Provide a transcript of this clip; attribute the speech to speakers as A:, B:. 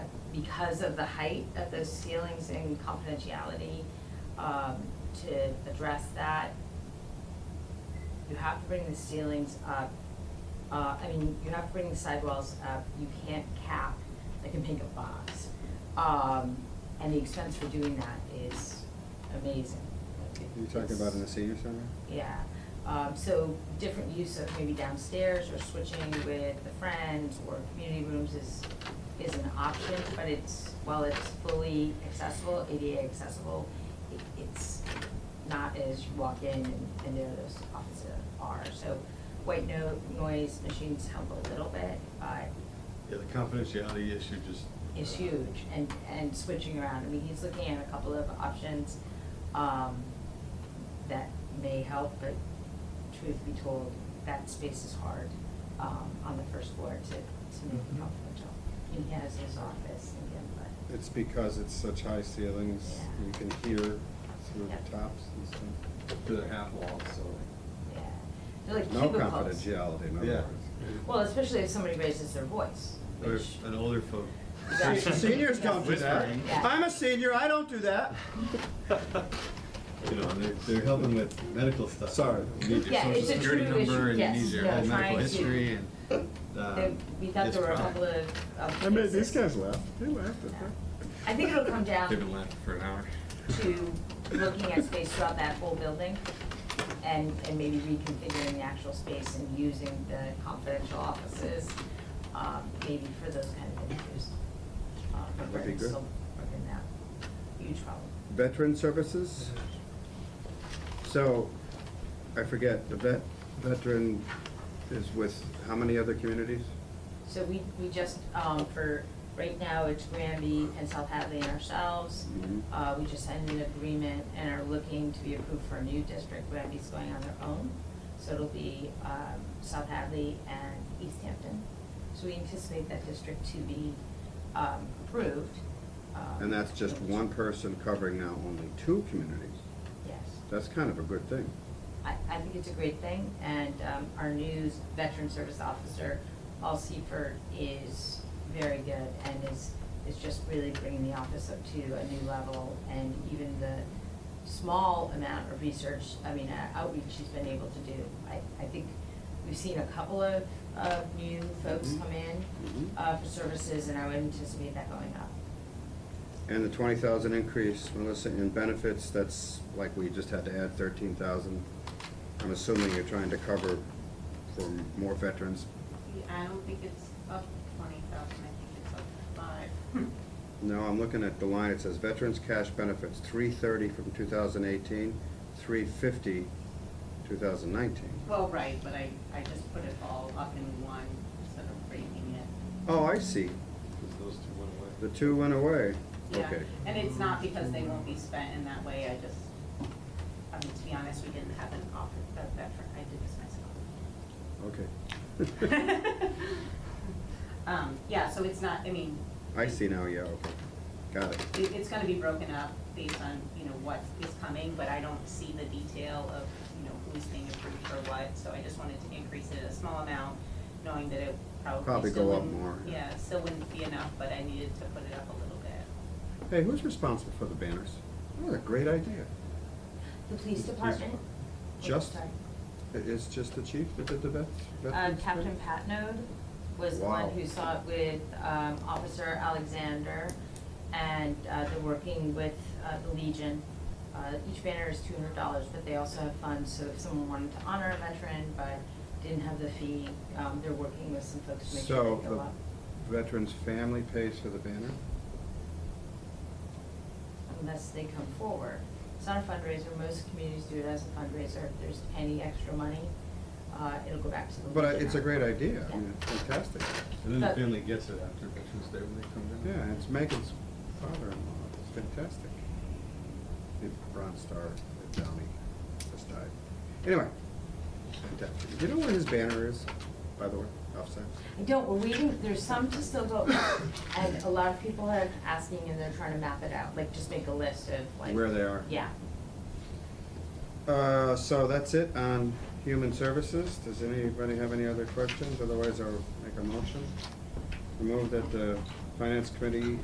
A: because of the height of those ceilings and confidentiality, um, to address that, you have to bring the ceilings up, uh, I mean, you have to bring the sidewalls up, you can't cap like a pickup box. Um, and the expense for doing that is amazing.
B: You're talking about in the senior center?
A: Yeah, um, so different use of maybe downstairs or switching with the friends or community rooms is, is an option, but it's, while it's fully accessible, ADA accessible, it, it's not as you walk in and, and there those offices are, so white no, noise machines help a little bit, but
C: Yeah, the confidentiality issue just.
D: uh,
A: is huge and, and switching around. I mean, he's looking at a couple of options, um, that may help, but truth be told, that space is hard, um, on the first floor to, to
B: Mm-hmm.
A: make it confidential. And he has his office and him, but,
B: It's because it's such high ceilings,
A: Yeah.
B: you can hear through
A: Yeah.
B: the tops and stuff.
C: To the half wall, so.
A: yeah. They're like
B: No
A: cubicles.
B: confidentiality, in other
C: Yeah.
B: words.
A: Well, especially if somebody raises their voice,
C: Or
A: which,
C: an older folk.
A: Yeah.
D: Se- Seniors don't do that.
C: Whispering.
D: I'm a senior, I don't do that.
C: You know, and they're, they're helping with medical stuff.
B: Sorry.
C: You need your
A: Yeah,
C: social
A: it's a
C: security
A: true issue.
C: number and you
A: Yes.
C: need your
A: No,
C: medical
A: trying to-
C: history and,
A: they-
C: um.
A: we thought
C: it's
A: there were a
C: fine.
A: couple of, of
B: I mean, these
A: cases.
B: guys laughed, they laughed at
A: Yeah.
B: that.
A: I think it'll come down
C: They've been laughing for an hour.
A: to looking at space throughout that whole building and, and maybe reconfiguring the actual space and using the confidential offices, um, maybe for those kind of interviews. Uh, but
B: That'd be
A: we're
B: good.
A: still working that huge problem.
B: Veteran Services? So, I forget, the vet, veteran is with how many other communities?
A: So we, we just, um, for, right now, it's Granby and South Hadley and ourselves.
B: Mhm.
A: Uh, we just signed an agreement and are looking to be approved for a new district, Granby's going on their own. So it'll be, um, South Hadley and East Hampton. So we anticipate that district to be, um, approved. um,
B: And that's just one person covering now only two communities.
A: Yes.
B: That's kind of a good thing.
A: I, I think it's a great thing, and um, our new veteran service officer, Paul Seifert, is very good and is, is just really bringing the office up to a new level, and even the small amount of research, I mean, uh, outreach he's been able to do. I, I think we've seen a couple of, of new folks
B: Mhm.
A: come in
B: Mhm.
A: uh, for services, and I would anticipate that going up.
B: And the twenty thousand increase, Melissa, in benefits, that's like we just had to add thirteen thousand. I'm assuming you're trying to cover for more veterans.
E: I don't think it's up twenty thousand, I think it's up five.
B: No, I'm looking at the line, it says veterans cash benefits, three thirty from 2018, 350 thousand nineteen.
E: Well, right, but I, I just put it all up in one instead of breaking it.
B: Oh, I see,
C: Because those two went away.
B: the two went away,
E: Yeah,
B: okay.
E: And it's not because they won't be spent in that way, I just, I mean, to be honest, we didn't have an offer, a veteran, I did this myself.
B: Okay.
E: Um, yeah, so it's not, I mean,
B: I see now, yeah, okay, got it.
E: it, it's gonna be broken up based on, you know, what is coming, but I don't see the detail of, you know, who's being approved for what, so I just wanted to increase it a small amount, knowing that it
B: Probably
E: probably
B: go
E: still
B: up
E: wouldn't.
B: more.
E: Yeah, still wouldn't be enough, but I needed to put it up a little bit.
B: Hey, who's responsible for the banners? That was Oh, a great idea.
A: The police department? Oh,
B: Just,
A: Sorry.
B: it- it's just the chief that did the vets?
A: Um,
B: veterans
A: Captain
B: thing?
A: Patnode was the one
B: Wow.
A: who saw it with, um, Officer Alexander, and, uh, they're working with, uh, the Legion. Uh, each banner is two hundred dollars, but they also have funds, so if someone wanted to honor a veteran but didn't have the fee, um, they're working with some folks to make sure they go
B: So
A: up.
B: the veteran's family pays for the banner?
A: unless they come forward. It's not a fundraiser, most communities do it as a fundraiser, if there's any extra money, uh, it'll go back to the Legion.
B: But I- it's a great idea, I mean,
A: Yeah.
B: it's fantastic.
C: And then the
A: But-
C: family gets it after Veterans Day when they come down.
B: Yeah, and it's Megan's father-in-law, it's fantastic. The Bronze Star, the Downey, just died. Anyway, fantastic. Do you know where his banner is, by the way, offside?
A: I don't, we're waiting, there's some to still go, up, and a lot of people are asking and they're trying to map it out, like just make a list of like.
B: Where they are?
A: Yeah.
B: Uh, so that's it on human services. Does anybody have any other questions? Otherwise, I'll make a motion. Remove that the finance committee